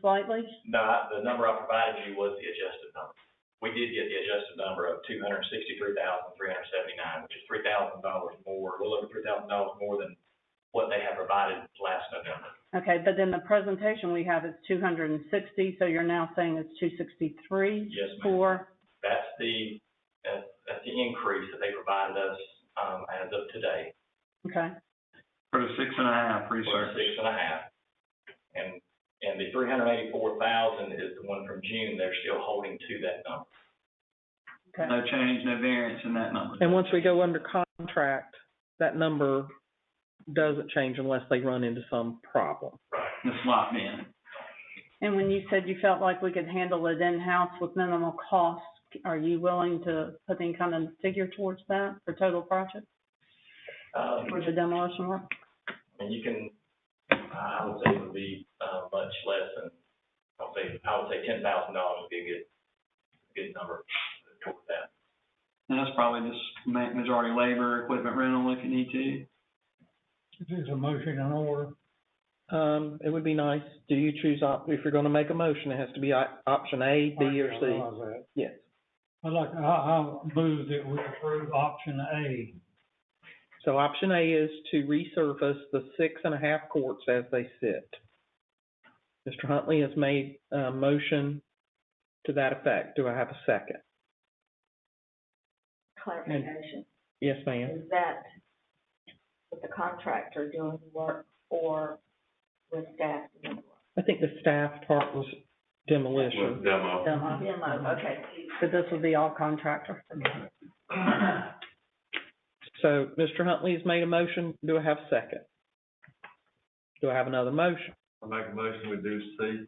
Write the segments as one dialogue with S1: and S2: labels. S1: slightly?
S2: No, the number I provided you was the adjusted number. We did get the adjusted number of two hundred sixty-three thousand, three hundred seventy-nine, which is three thousand dollars more, a little over three thousand dollars more than what they had provided last November.
S1: Okay, but then the presentation we have is two hundred and sixty, so you're now saying it's two sixty-three
S2: Yes, ma'am.
S1: for,
S2: That's the, that's, that's the increase that they provided us, um, as of today,
S1: okay,
S3: For the six and a half
S2: for
S3: research.
S2: six and a half. And, and the three hundred eighty-four thousand is the one from June, they're still holding to that number.
S1: okay.
S3: No change, no variance in that number.
S4: And once we go under contract, that number doesn't change unless they run into some problem.
S3: This locked in.
S1: And when you said you felt like we could handle it in-house with minimal cost, are you willing to put any kind of figure towards that for total project,
S2: Um,
S1: for the demolition work?
S2: And you can, I would say it would be, uh, much less than, I would say, I would say ten thousand dollars would be a good, good number toward that.
S3: And that's probably just ma- majority labor, equipment rental if you need to.
S5: There's a motion in order.
S4: Um, it would be nice, do you choose op, if you're gonna make a motion, it has to be op- option A, B, or
S5: I
S4: C?
S5: realize that.
S4: Yes.
S5: I'd like, I, I move that we approve option A.
S4: So option A is to resurface the six and a half courts as they sit. Mr. Huntley has made a motion to that effect. Do I have a second?
S6: clarification,
S4: Yes, ma'am.
S6: is that with the contractor doing the work or with staff doing the work?
S4: I think the staff part was demolition.
S1: Demo.
S6: Demo, okay.
S1: But this would be all contractor.
S4: So Mr. Huntley has made a motion. Do I have a second? Do I have another motion?
S7: I make a motion, we do C.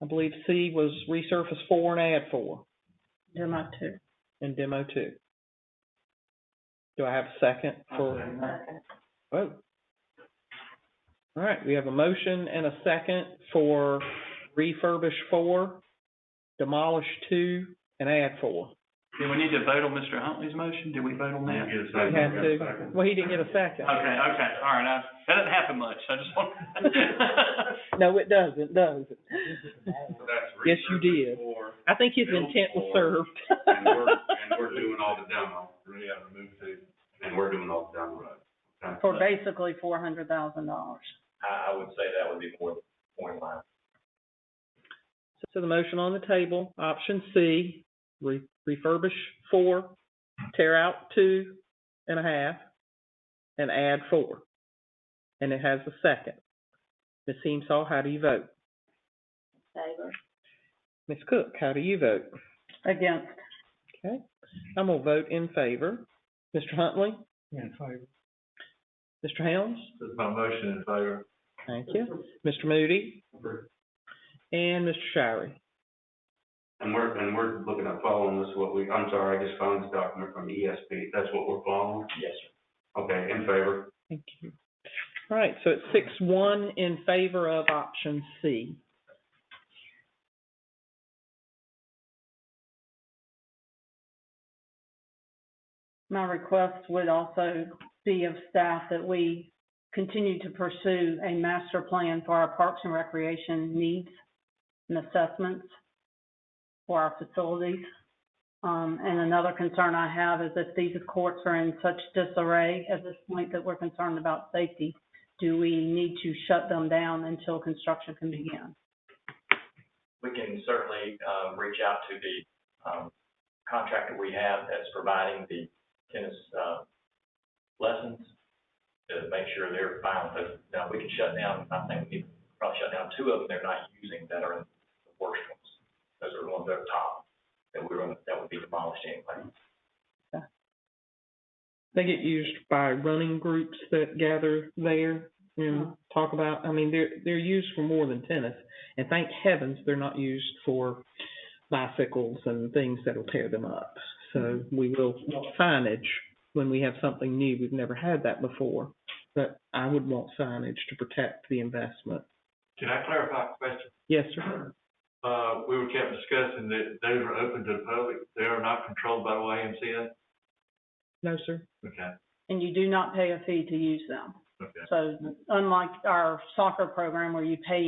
S4: I believe C was resurface four and add four
S1: Demo too.
S4: in demo two. Do I have a second for?
S6: Okay.
S4: Oh. All right, we have a motion and a second for refurbish four, demolish two, and add four.
S3: Do we need to vote on Mr. Huntley's motion? Did we vote on that?
S7: Get a
S4: We
S7: second.
S4: have to, well, he didn't get a second.
S3: Okay, okay, all right, I, that doesn't happen much, I just want.
S4: No, it doesn't, does it? Yes, you did.
S7: Four,
S4: I think his intent was served.
S7: and we're, and we're doing all the demo. Yeah, remove two. And we're doing all the demo. Okay.
S1: For basically four hundred thousand dollars.
S2: I, I would say that would be more, more in line.
S4: So the motion on the table, option C, re- refurbish four, tear out two and a half, and add four. And it has a second. Ms. Heemsall, how do you vote?
S6: Favor?
S4: Ms. Cook, how do you vote?
S1: Against,
S4: Okay, I'm gonna vote in favor. Mr. Huntley,
S5: In favor.
S4: Mr. Helms,
S7: That's my motion in favor.
S4: thank you, Mr. Moody, and Mr. Shirey.
S7: And we're, and we're looking at following this, what we, I'm sorry, I just found this document from ESP, that's what we're following?
S2: Yes, sir.
S7: Okay, in favor.
S4: Thank you. All right, so it's six one in favor of option C.
S1: my request would also be of staff that we continue to pursue a master plan for our parks and recreation needs and assessments for our facilities. Um, and another concern I have is if these courts are in such disarray at this point that we're concerned about safety, do we need to shut them down until construction can begin?
S2: we can certainly, um, reach out to the, um, contractor we have that's providing the tennis, uh, lessons to make sure they're fine with it. Now, we can shut down, I think we need to probably shut down two of them they're not using that are the worst ones. Those are the ones that are top, that we were, that would be demolished anyway.
S4: They get used by running groups that gather there and talk about, I mean, they're, they're used for more than tennis. And thank heavens, they're not used for bicycles and things that'll tear them up. So we will want signage when we have something new. We've never had that before. But I would want signage to protect the investment.
S7: Can I clarify a question?
S4: Yes, sir.
S7: Uh, we were kept discussing that those are open to the public, they are not controlled by the YMCA?
S4: No, sir.
S7: Okay,
S1: And you do not pay a fee to use them.
S7: okay.
S1: So unlike our soccer program where you pay